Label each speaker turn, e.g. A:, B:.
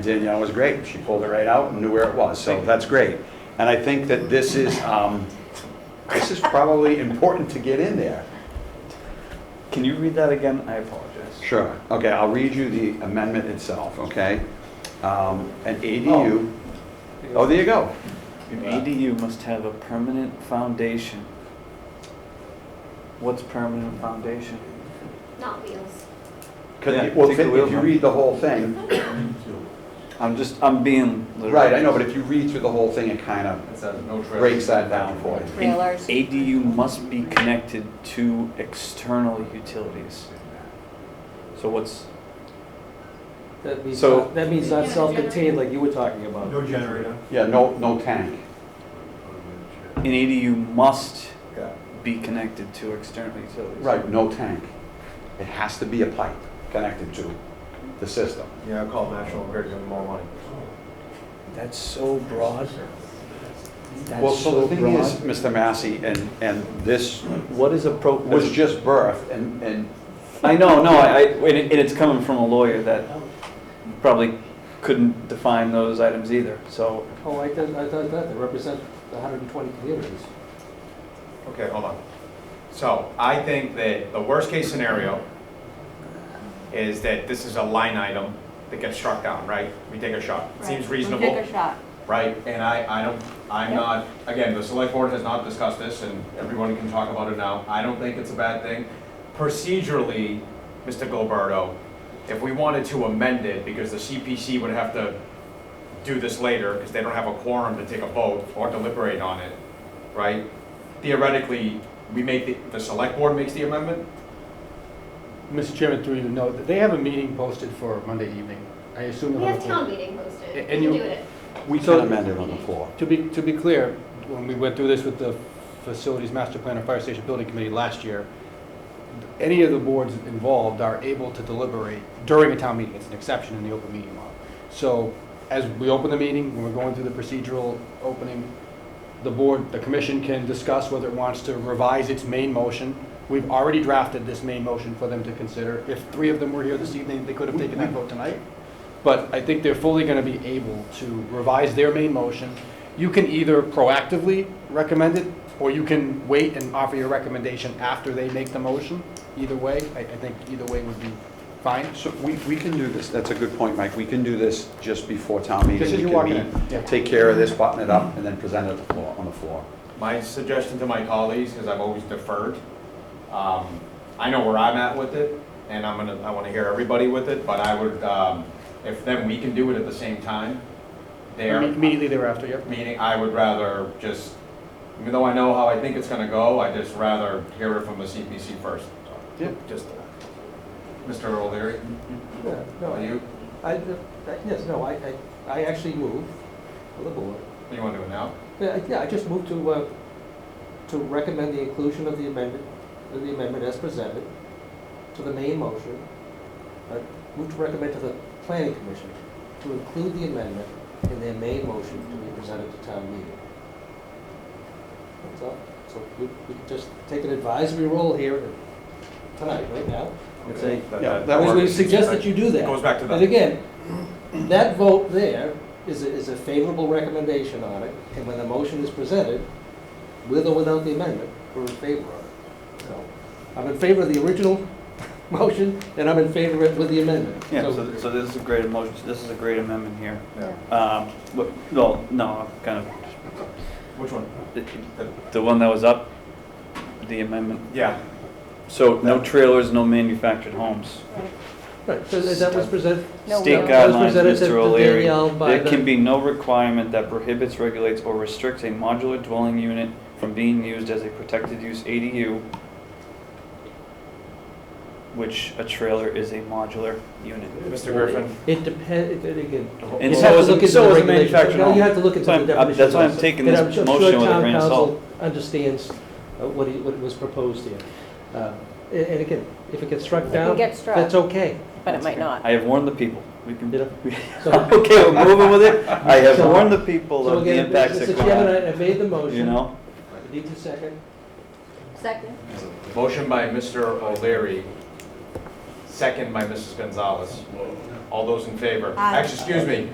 A: Danielle was great. She pulled it right out and knew where it was, so that's great. And I think that this is, um, this is probably important to get in there.
B: Can you read that again? I apologize.
A: Sure. Okay, I'll read you the amendment itself, okay? Um, An ADU, oh, there you go.
B: An ADU must have a permanent foundation. What's permanent foundation?
C: Not wheels.
A: 'Cause
B: Yeah,
A: you- well,
B: take the wheel
A: if you
B: from-
A: read the whole thing,
B: I'm just, I'm being literal.
A: right, I know, but if you read through the whole thing, it kind of
D: It says no traffic.
A: breaks that down for you.
C: Trailers.
B: ADU must be connected to external utilities. So what's,
E: That means,
B: So-
E: not- that means not self-contained like you were talking about.
D: No generator.
A: Yeah, no, no tank.
B: an ADU must
A: Yeah.
B: be connected to external utilities.
A: Right, no tank. It has to be a pipe connected to the system.
D: Yeah, I called National Grid, give them more money.
B: That's so broad. That's
A: Well, so
B: so
A: the thing is,
B: broad.
A: Mr. Massey, and, and this
B: What is a pro?
A: was just birth, and, and
B: I know, no, I, I- and it- and it's coming from a lawyer that probably couldn't define those items either, so.
E: Oh, I thought, I thought that, they represent the hundred and twenty communities.
D: Okay, hold on. So I think that the worst-case scenario is that this is a line item that gets struck down, right? We take a shot. Seems reasonable,
C: Take a shot.
D: right? And I, I don't, I'm
C: Yeah.
D: not, again, the select board has not discussed this, and everyone can talk about it now. I don't think it's a bad thing. Procedurally, Mr. Gilberto, if we wanted to amend it, because the CPC would have to do this later, because they don't have a quorum to take a vote or deliberate on it, right? Theoretically, we make, the, the select board makes the amendment?
F: Mr. Chairman, through you, no, they have a meeting posted for Monday evening. I assume
C: We
F: they'll
C: have town
F: have
C: meeting posted. We
F: And
C: can
F: you-
C: do it.
A: we can
F: So-
A: amend it on the floor.
F: a- To be, to be clear, when we went through this with the Facilities Master Plan and Fire Station Building Committee last year, any of the boards involved are able to deliberate during a town meeting. It's an exception in the open meeting law. So as we open the meeting, when we're going through the procedural opening, the board, the commission can discuss whether it wants to revise its main motion. We've already drafted this main motion for them to consider. If three of them were here this evening, they could have taken that vote tonight. But I think they're fully going to be able to revise their main motion. You can either proactively recommend it, or you can wait and offer your recommendation after they make the motion. Either way, I, I think either way would be fine.
A: So we, we can do this, that's a good point, Mike, we can do this just before town meeting.
F: Just as
A: We
F: you're
A: can
F: walking
A: meet,
F: in, yeah.
A: Take care of this, button it up, and then present it at the floor, on the floor.
D: My suggestion to my colleagues, because I've always deferred, um, I know where I'm at with it, and I'm gonna, I wanna hear everybody with it, but I would, um, if then we can do it at the same time, there.
F: Immediately thereafter, yep.
D: Meaning, I would rather just, even though I know how I think it's gonna go, I'd just rather hear it from the CPC first. So,
A: Yep.
D: Just, Mr. O'Leary,
E: Yeah, no,
D: are
E: I,
D: you,
E: I, I- yes, no, I, I, I actually moved for the board.
D: you wanna do it now?
E: Yeah, I- yeah, I just moved to, uh, to recommend the inclusion of the amendment, of the amendment as presented to the main motion. I moved to recommend to the planning commission to include the amendment in their main motion to be presented to town meeting. That's all. So we, we can just take an advisory role here tonight, right now. and say,
D: That-
A: Yeah, that
E: we we
A: works.
E: suggest that you do that.
D: It goes back to
E: And
D: the,
E: again, that vote there is a, is a favorable recommendation on it, and when the motion is presented, with or without the amendment, we're in favor of it. So, I'm in favor of the original motion, and I'm in favor of it with the amendment.
B: Yeah, so, so this is a great emotion, this is a great amendment here.
D: Yeah.
B: Um, but, well, no, I'm kind of,
D: which one?
B: the,
D: The-
B: the one that was up, the amendment.
D: Yeah,
B: So no trailers, no manufactured homes.
E: Right, so that that was presented.
C: No
B: State
C: will.
E: that was
B: guidelines,
E: presented to-
B: Mr.
E: to
B: O'Leary.
E: Danielle by
B: There
E: the-
B: can be no requirement that prohibits, regulates, or restricts a modular dwelling unit from being used as a protected use ADU, which a trailer is a modular unit.
D: Mr. Griffin,
E: It depends, again.
B: And
E: you
B: so
E: have to
B: is-
E: look
B: so
E: into the
B: is a
E: regulations.
B: manufactured
E: No,
B: home.
E: You have to look into
B: So
E: the
B: I'm- I'm-
E: definition.
B: that's why I'm
E: also.
B: taking
E: And
B: this
E: I'm sure-
B: motion with a grain of
E: sure
B: salt.
E: town council understands uh, what he, what was proposed here. Uh, And and again, if it gets struck down,
G: get struck.
E: that's okay.
G: But it might not.
B: I have warned the people. We can,
E: You know? So-
B: okay, we're moving with it. I have
E: So-
B: warned the people
E: So
B: of the
E: again,
B: impacts that
E: Mr.
B: come
E: Chairman,
B: out,
E: I- I made the motion.
B: you know?
E: I Need a second?
C: Second.
D: motion by Mr. O'Leary, second by Mrs. Gonzalez. All those in favor?
C: Aye.
D: Actually, excuse me,